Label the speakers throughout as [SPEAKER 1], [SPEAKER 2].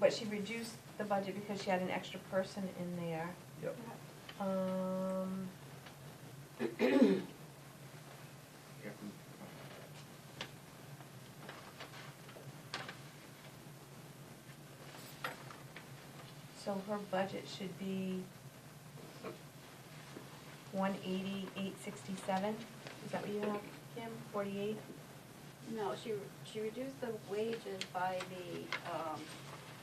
[SPEAKER 1] but she reduced the budget because she had an extra person in there.
[SPEAKER 2] Yep.
[SPEAKER 1] Um, so her budget should be one eighty, eight sixty-seven, is that what you have, Kim, forty-eight?
[SPEAKER 3] No, she, she reduced the wages by the, um,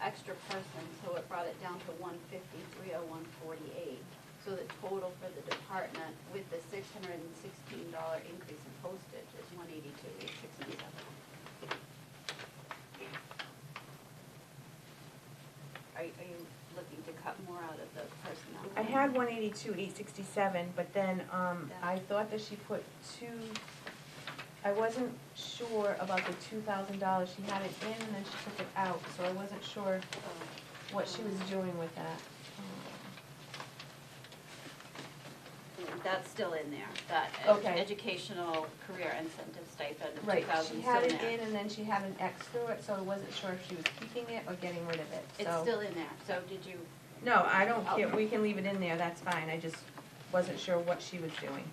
[SPEAKER 3] extra person, so it brought it down to one fifty-three oh one forty-eight. So the total for the department with the six hundred and sixteen dollar increase in postage is one eighty-two eight sixty-seven. Are, you- are you looking to cut more out of the personnel?
[SPEAKER 1] I had one eighty-two, eight sixty-seven, but then, um,
[SPEAKER 3] Yeah.
[SPEAKER 1] I thought that she put two, I wasn't sure about the two thousand dollars, she had it in and then she took it out, so I wasn't sure
[SPEAKER 3] So-
[SPEAKER 1] what she was doing with that. Um,
[SPEAKER 3] That's still in there, that ed-
[SPEAKER 1] Okay.
[SPEAKER 3] educational career incentive stipend of
[SPEAKER 1] Right,
[SPEAKER 3] two thousand
[SPEAKER 1] she
[SPEAKER 3] is still
[SPEAKER 1] had
[SPEAKER 3] in
[SPEAKER 1] it in
[SPEAKER 3] there.
[SPEAKER 1] and then she had an X through it, so I wasn't sure if she was keeping it or getting rid of it, so.
[SPEAKER 3] It's still in there, so did you,
[SPEAKER 1] No, I don't care,
[SPEAKER 3] Oh.
[SPEAKER 1] we can leave it in there, that's fine, I just wasn't sure what she was doing.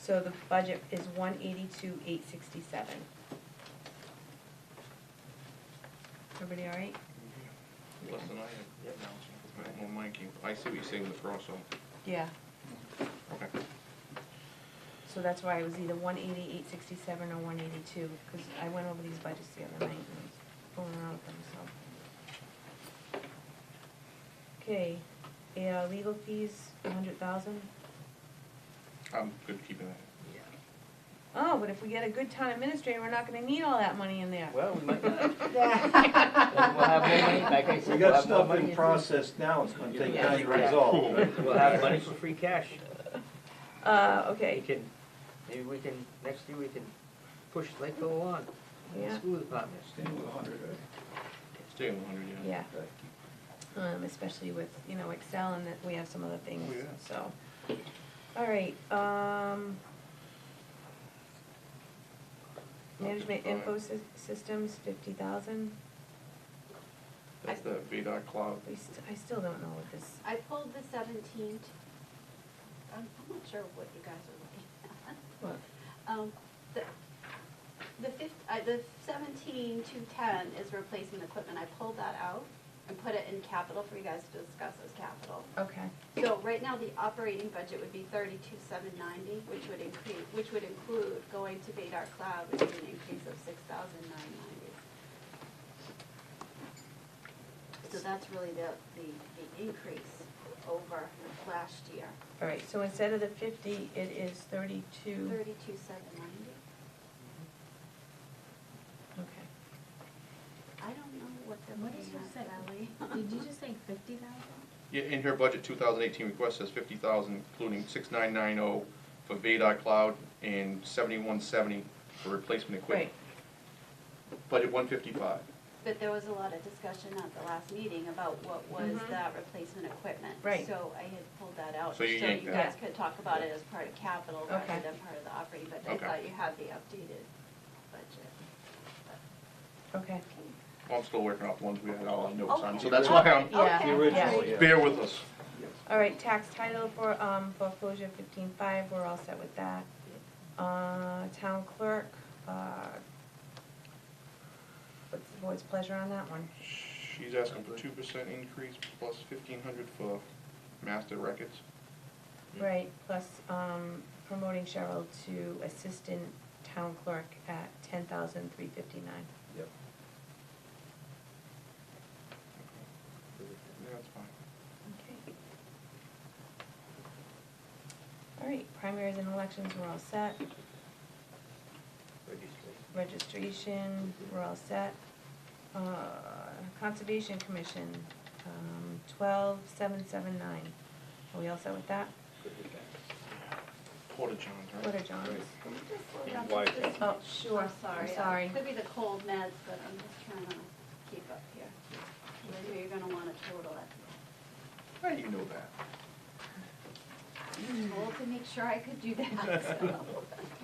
[SPEAKER 1] So the budget is one eighty-two, eight sixty-seven. Everybody all right?
[SPEAKER 4] Less than I
[SPEAKER 2] Yep.
[SPEAKER 4] have. Well, Mikey, I see what you're saying, the crossover.
[SPEAKER 1] Yeah,
[SPEAKER 4] Okay.
[SPEAKER 1] so that's why it was either one eighty, eight sixty-seven or one eighty-two, because I went over these budgets the other night and was going around with them, so. Okay, yeah, legal fees, a hundred thousand.
[SPEAKER 4] I'm good keeping that.
[SPEAKER 1] Oh, but if we get a good town administrator, we're not gonna need all that money in there.
[SPEAKER 5] Well, we might not.
[SPEAKER 1] Yeah.
[SPEAKER 5] We'll have more money, like I
[SPEAKER 2] We
[SPEAKER 5] said, we'll
[SPEAKER 2] got
[SPEAKER 5] have more
[SPEAKER 2] stuff
[SPEAKER 5] money.
[SPEAKER 2] in process now, it's gonna take
[SPEAKER 5] Yeah.
[SPEAKER 2] time to resolve. right?
[SPEAKER 5] We'll have money for free cash.
[SPEAKER 1] Uh,
[SPEAKER 5] We
[SPEAKER 1] okay,
[SPEAKER 5] can, maybe we can, next year we can push Lakeville along, the
[SPEAKER 1] Yeah.
[SPEAKER 5] school department.
[SPEAKER 2] Stand with a hundred, right?
[SPEAKER 4] Stay on the hundred, yeah.
[SPEAKER 1] yeah,
[SPEAKER 2] Okay.
[SPEAKER 1] um, especially with, you know, Excel and that we have some other things,
[SPEAKER 4] Oh, yeah.
[SPEAKER 1] so. All right, um. Management info sys- systems, fifty thousand,
[SPEAKER 4] That's the VDOT cloud.
[SPEAKER 1] we st- I still don't know what this,
[SPEAKER 3] I pulled the seventeen, I'm, I'm not sure what you guys are looking at.
[SPEAKER 1] What?
[SPEAKER 3] Um, the, the fif, uh, the seventeen two ten is replacing the equipment, I pulled that out and put it in capital for you guys to discuss as capital.
[SPEAKER 1] okay,
[SPEAKER 3] So right now, the operating budget would be thirty-two, seven ninety, which would increase, which would include going to Vadar Cloud, which is an increase of six thousand nine ninety. So that's really the, the, the increase over last year,
[SPEAKER 1] all right, so instead of the fifty, it is thirty-two,
[SPEAKER 3] thirty-two, seven ninety.
[SPEAKER 1] okay.
[SPEAKER 3] I don't know what the
[SPEAKER 6] What did you say?
[SPEAKER 3] Sally.
[SPEAKER 6] Did you just say fifty thousand?
[SPEAKER 4] Yeah, in her budget, two thousand eighteen request says fifty thousand, including six nine nine oh for VDOT cloud and seventy-one seventy for replacement equipment.
[SPEAKER 1] Right,
[SPEAKER 4] Budget one fifty-five.
[SPEAKER 3] But there was a lot of discussion at the last meeting about what was
[SPEAKER 1] Mhm.
[SPEAKER 3] that replacement equipment.
[SPEAKER 1] Right.
[SPEAKER 3] So I had pulled that out,
[SPEAKER 4] So
[SPEAKER 3] so
[SPEAKER 4] you
[SPEAKER 3] you
[SPEAKER 4] yanked
[SPEAKER 1] that.
[SPEAKER 3] guys could talk about it as part of capital rather
[SPEAKER 1] Okay.
[SPEAKER 3] than part of the operating, but I
[SPEAKER 4] Okay.
[SPEAKER 3] thought you had the updated budget.
[SPEAKER 1] okay,
[SPEAKER 4] Well, I'm still working off the ones we had all our notes on, so
[SPEAKER 3] Okay.
[SPEAKER 4] that's why
[SPEAKER 3] Okay.
[SPEAKER 4] I'm,
[SPEAKER 1] Yeah.
[SPEAKER 2] The original, yeah.
[SPEAKER 4] bear with us.
[SPEAKER 1] all right, tax title for, um, foreclosure fifteen-five, we're all set with that. Uh, town clerk, uh, what's the board's pleasure on that one?
[SPEAKER 4] She's asking for two percent increase plus fifteen hundred for master records.
[SPEAKER 1] Right, plus, um, promoting Cheryl to assistant town clerk at ten thousand three fifty-nine.
[SPEAKER 2] Yep.
[SPEAKER 4] Yeah, That's fine.
[SPEAKER 1] Okay. All right, primaries and elections, we're all set.
[SPEAKER 5] Registration.
[SPEAKER 1] Registration, we're all set. Uh, Conservation Commission, um, twelve seven seven nine. Are we all set with that?
[SPEAKER 5] Good with that.
[SPEAKER 4] Porta johns, right?
[SPEAKER 1] What are John's?
[SPEAKER 3] Can you just slow
[SPEAKER 2] And
[SPEAKER 3] down
[SPEAKER 2] why
[SPEAKER 3] just
[SPEAKER 2] is
[SPEAKER 3] a
[SPEAKER 1] Oh,
[SPEAKER 3] smidge?
[SPEAKER 1] sure,
[SPEAKER 3] I'm
[SPEAKER 1] I'm
[SPEAKER 3] sorry. Uh,
[SPEAKER 1] sorry.
[SPEAKER 3] Could be the cold meds, but I'm just trying to keep up here. 'Cause I know you're gonna wanna total it.
[SPEAKER 4] How do you know that?
[SPEAKER 3] I was told to make sure I could do that, so.